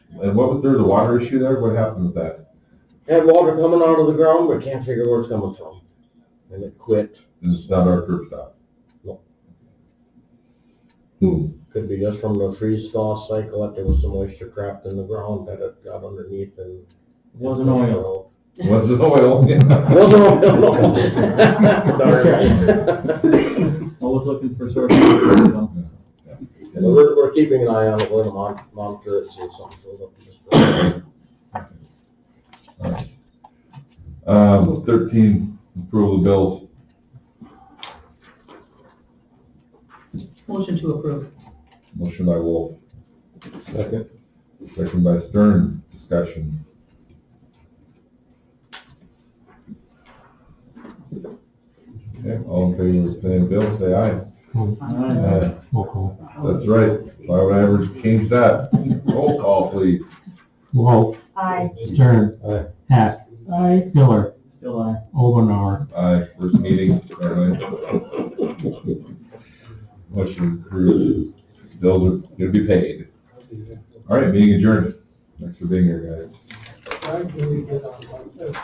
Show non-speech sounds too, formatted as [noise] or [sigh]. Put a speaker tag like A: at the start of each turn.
A: And what, was- there's a water issue there? What happened with that?
B: Had water coming out of the ground, but can't figure where it's coming from. And it quit.
A: It's not our curb stop?
B: No.
A: Hmm,
B: [laughs] Could be just from the freeze thaw cycle, that there was some moisture trapped in the ground that it got underneath and.
C: Wasn't oil.
A: was it oil?
B: [laughs]
A: [laughs]
B: Wasn't [laughs] oil.
C: Always looking for sources.
B: And we're, we're keeping an eye on it, we're gonna mon- monitor it, and see if something goes up. this way.
A: Um, thirteen, approval of bills.
D: Motion to approve.
A: Motion by Wolf,
B: Second.
A: second by Stern, discussion. Okay, all in favor of paying bills, say aye.
C: Alright.
E: Roll call.
A: That's right. Why would I ever change that? Roll call, please.
E: Wolf.
D: Aye.
E: Stern.
B: Aye.
E: Hack.
D: Aye.
E: Miller.
C: Still aye.
E: Omenauer.
A: Aye, first meeting, apparently. Motion approved. Bills are gonna be paid. All right, meeting adjourned. Thanks for being here, guys.